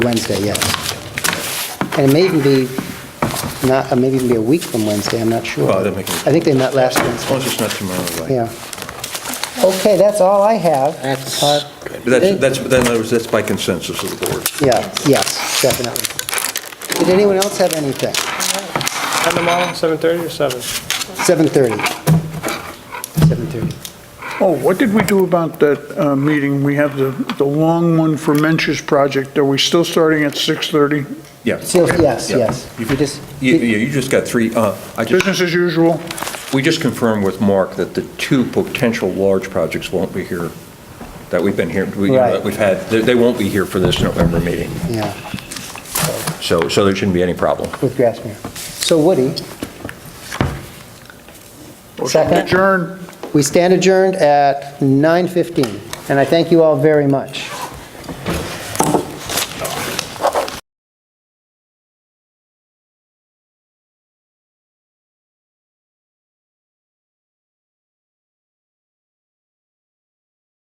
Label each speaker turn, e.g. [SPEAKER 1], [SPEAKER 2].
[SPEAKER 1] Wednesday, yes. And it may even be, not, uh, maybe even be a week from Wednesday, I'm not sure.
[SPEAKER 2] Well, that makes sense.
[SPEAKER 1] I think they met last
[SPEAKER 2] As
[SPEAKER 1] Wednesday,
[SPEAKER 2] long as it's not tomorrow, right?
[SPEAKER 1] yeah. Okay, that's all I have.
[SPEAKER 3] That's-
[SPEAKER 1] Uh,
[SPEAKER 2] But that's, that's, but in other words, that's by consensus of the board.
[SPEAKER 1] Yeah, yes, definitely. Did anyone else have anything?
[SPEAKER 4] Time tomorrow, 7:30 or 7?
[SPEAKER 1] 7:30. 7:30.
[SPEAKER 5] Oh, what did we do about that uh, meeting? We have the, the long one for Mensch's project. Are we still starting at 6:30?
[SPEAKER 2] Yeah.
[SPEAKER 1] Still, yes,
[SPEAKER 2] Yeah.
[SPEAKER 1] yes.
[SPEAKER 2] You-
[SPEAKER 1] We just-
[SPEAKER 2] You, you you just got three, uh, I just,
[SPEAKER 5] Business as usual?
[SPEAKER 2] we just confirmed with Mark that the two potential large projects won't be here, that we've been here, we- you know,
[SPEAKER 1] Right.
[SPEAKER 2] that we've had, they, they won't be here for this November meeting,
[SPEAKER 1] Yeah,
[SPEAKER 2] so, so there shouldn't be any problem.
[SPEAKER 1] with Grassmere. So Woody, Second.
[SPEAKER 5] Adjourn.
[SPEAKER 1] we stand adjourned at 9:15, and I thank you all very much.